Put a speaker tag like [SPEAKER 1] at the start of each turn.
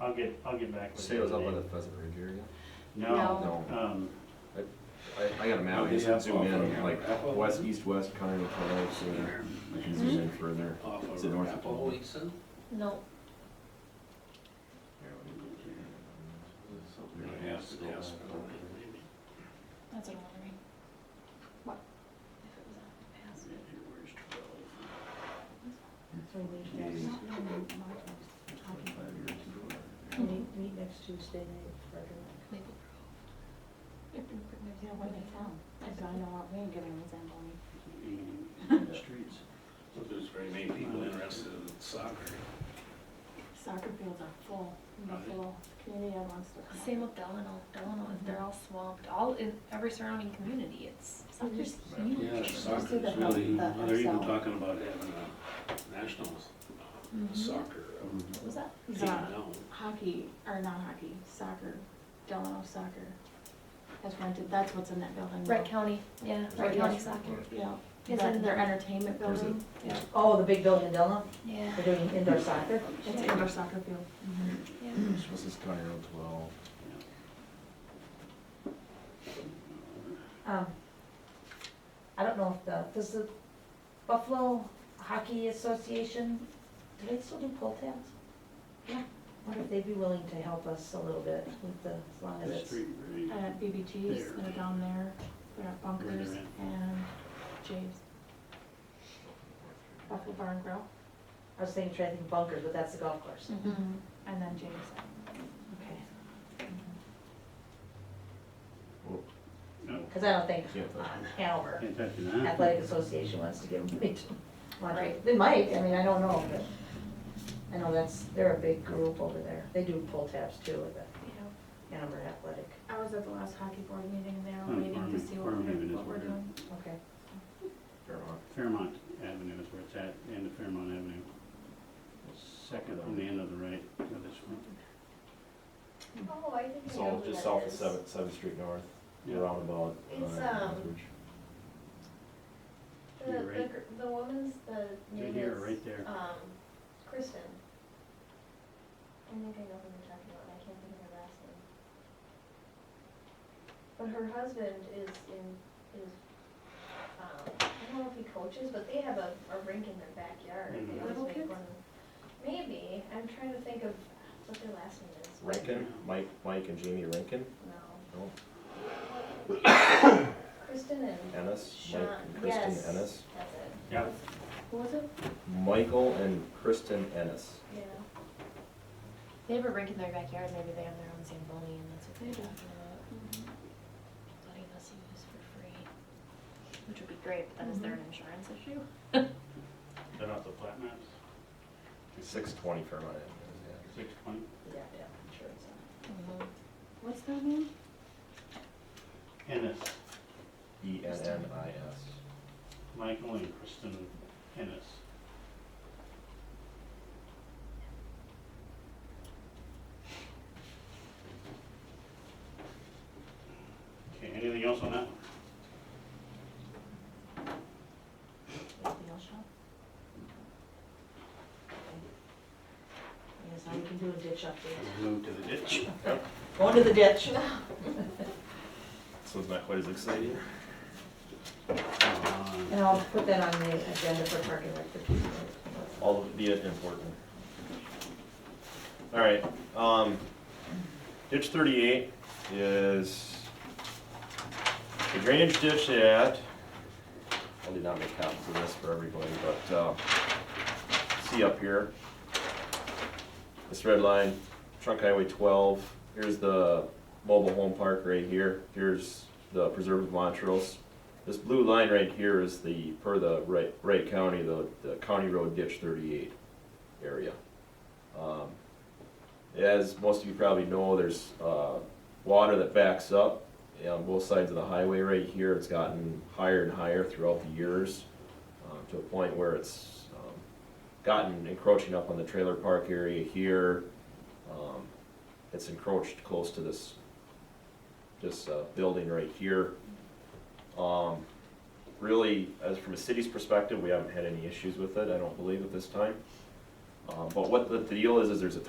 [SPEAKER 1] I'll get, I'll get back with
[SPEAKER 2] Say
[SPEAKER 1] you.
[SPEAKER 2] it was up by
[SPEAKER 1] today.
[SPEAKER 2] the Pheasant Ridge area?
[SPEAKER 1] No,
[SPEAKER 2] No,
[SPEAKER 1] um,
[SPEAKER 2] I, I got a map, I
[SPEAKER 3] Yeah.
[SPEAKER 2] just zoom in, like,
[SPEAKER 3] Apple.
[SPEAKER 2] west, east, west, county, Colorado, so I can zoom in further.
[SPEAKER 3] Off
[SPEAKER 2] Is
[SPEAKER 3] of
[SPEAKER 2] it north of
[SPEAKER 3] Apple.
[SPEAKER 2] Poland?
[SPEAKER 3] Is it
[SPEAKER 4] No,
[SPEAKER 3] something like Aspen- Aspen?
[SPEAKER 4] that's what I'm wondering. What?
[SPEAKER 5] So we meet
[SPEAKER 2] Jeez.
[SPEAKER 5] next, no, no, no, no. meet, meet next Tuesday night for dinner. You know, when they come, cause I know what we're gonna resemble.
[SPEAKER 1] in the streets.
[SPEAKER 3] Well, There's very many people interested in soccer.
[SPEAKER 5] Soccer fields are full,
[SPEAKER 3] Right.
[SPEAKER 5] full, community wants to come.
[SPEAKER 4] Same with Delano, Delano, they're all swamped, all in every surrounding community, it's, soccer's
[SPEAKER 2] Yeah.
[SPEAKER 4] huge.
[SPEAKER 3] Yeah,
[SPEAKER 5] Just to
[SPEAKER 3] soccer
[SPEAKER 5] the
[SPEAKER 3] is
[SPEAKER 5] help-
[SPEAKER 3] really,
[SPEAKER 5] the
[SPEAKER 3] they're even
[SPEAKER 5] upsell.
[SPEAKER 3] talking about having a national
[SPEAKER 4] Mhm.
[SPEAKER 3] soccer
[SPEAKER 4] What was that?
[SPEAKER 3] team
[SPEAKER 5] Yeah.
[SPEAKER 3] now.
[SPEAKER 5] Hockey, or not hockey, soccer, Delano soccer, that's rented, that's what's in that building.
[SPEAKER 4] Wright County, yeah, Wright
[SPEAKER 5] Right.
[SPEAKER 4] County
[SPEAKER 6] Mm-hmm.
[SPEAKER 4] Soccer,
[SPEAKER 5] Yeah,
[SPEAKER 4] Is
[SPEAKER 5] that,
[SPEAKER 4] it-
[SPEAKER 5] their entertainment
[SPEAKER 2] There's a-
[SPEAKER 5] building,
[SPEAKER 4] yeah,
[SPEAKER 7] Oh, the big building in Delano,
[SPEAKER 4] yeah,
[SPEAKER 7] they're doing indoor soccer?
[SPEAKER 5] it's an indoor soccer field.
[SPEAKER 4] yeah.
[SPEAKER 2] This is county road twelve.
[SPEAKER 7] Um, I don't know if the, does the Buffalo Hockey Association, do they still do pull tabs? Yeah. Wonder if they'd be willing to help us a little bit with the, as long as
[SPEAKER 3] The
[SPEAKER 7] it's,
[SPEAKER 3] street, right?
[SPEAKER 5] Uh, BBG's, they're down there, they're at Bunkers
[SPEAKER 3] Right.
[SPEAKER 5] and James. Buffalo Barn Grill,
[SPEAKER 7] I was thinking, trying to think bunkers, but that's the golf course.
[SPEAKER 5] Mm-hmm.
[SPEAKER 4] Mhm.
[SPEAKER 5] and then James.
[SPEAKER 7] Okay.
[SPEAKER 3] No,
[SPEAKER 7] Cause I don't think
[SPEAKER 2] Can't touch
[SPEAKER 7] Hanover
[SPEAKER 3] Can't touch it, huh?
[SPEAKER 7] Athletic Association wants to give them money to launch it.
[SPEAKER 4] Right.
[SPEAKER 7] They might, I mean, I don't know, but I know that's, they're a big group over there. They do pull tabs too with the
[SPEAKER 4] Yeah.
[SPEAKER 7] Hanover Athletic.
[SPEAKER 5] I was at the last hockey board meeting and
[SPEAKER 3] Oh,
[SPEAKER 5] they're waiting to
[SPEAKER 3] farming-
[SPEAKER 5] see what
[SPEAKER 3] farming
[SPEAKER 5] we're,
[SPEAKER 3] even is
[SPEAKER 5] what we're
[SPEAKER 3] where they're-
[SPEAKER 5] doing.
[SPEAKER 7] Okay.
[SPEAKER 2] Fairmont.
[SPEAKER 3] Fairmont Avenue is where it's at, and the Fairmont Avenue. Second from the end of the right of this one.
[SPEAKER 6] Oh, I didn't know
[SPEAKER 2] So
[SPEAKER 6] who
[SPEAKER 2] just
[SPEAKER 6] that
[SPEAKER 2] south of
[SPEAKER 6] is.
[SPEAKER 2] Seventh, Seventh Street North,
[SPEAKER 3] Yeah.
[SPEAKER 2] roundabout. uh,
[SPEAKER 6] It's, um,
[SPEAKER 2] Northridge.
[SPEAKER 6] The,
[SPEAKER 3] You're
[SPEAKER 6] the,
[SPEAKER 3] right.
[SPEAKER 6] gr- the woman's, the
[SPEAKER 3] Right
[SPEAKER 6] name
[SPEAKER 3] here,
[SPEAKER 6] is,
[SPEAKER 3] right there.
[SPEAKER 6] um, Kristen. I think I know who you're talking about, and I can't think of her last name. But her husband is in, is, um, I don't know if he coaches, but they have a, a rink in their backyard.
[SPEAKER 3] Mhm.
[SPEAKER 6] They always
[SPEAKER 5] Little
[SPEAKER 6] make
[SPEAKER 5] kids?
[SPEAKER 6] one- Maybe, I'm trying to think of what their last name is. but
[SPEAKER 2] Rankin, Mike, Mike and Jamie Rankin,
[SPEAKER 6] No,
[SPEAKER 2] no,
[SPEAKER 6] Kristen and
[SPEAKER 2] Ennis, Mike
[SPEAKER 6] Sean,
[SPEAKER 2] and
[SPEAKER 6] yes,
[SPEAKER 2] Kristen Ennis.
[SPEAKER 6] that's it,
[SPEAKER 3] Yeah.
[SPEAKER 5] What was it?
[SPEAKER 2] Michael and Kristen Ennis.
[SPEAKER 6] yeah.
[SPEAKER 4] They have a rink in their backyard, maybe they have their own Zamboni and that's what they're talking about.
[SPEAKER 5] Mm-hmm.
[SPEAKER 4] Letting us use for free, Mm-hmm. which would be great, but then is there an insurance issue?
[SPEAKER 3] Is that off the plat maps?
[SPEAKER 2] Six twenty Fairmont Avenue,
[SPEAKER 3] Six twenty?
[SPEAKER 7] Yeah, yeah, sure. it's on.
[SPEAKER 4] Mm-hmm.
[SPEAKER 5] What's their name?
[SPEAKER 3] Ennis,
[SPEAKER 2] yeah. E N N I S.
[SPEAKER 3] Michael and Kristen Ennis. Okay, anything else on that?
[SPEAKER 5] Anything else, Sean?
[SPEAKER 7] I guess now we can do a ditch update.
[SPEAKER 3] Move to the ditch.
[SPEAKER 7] Going to the ditch.
[SPEAKER 2] So it's not quite as exciting.
[SPEAKER 3] Uh,
[SPEAKER 7] And I'll put that on the agenda for parking rec for Tuesday.
[SPEAKER 2] All the important. All right, um, ditch thirty-eight is the drainage ditch at, I did not make copies of this for everybody, but, uh, see up here. This red line, trunk highway twelve, here's the mobile home park right here, here's the preserve of Montrose. This blue line right here is the, per the Wright, Wright County, the, the County Road Ditch thirty-eight area. Um, As most of you probably know, there's, uh, water that backs up on both sides of the highway right here. It's gotten higher and higher throughout the years, um, to a point where it's, um, gotten encroaching up on the trailer park area here. Um, It's encroached close to this, this, uh, building right here. Um, really, as from a city's perspective, we haven't had any issues with it, I don't believe at this time. Um, but what the deal is, is there's a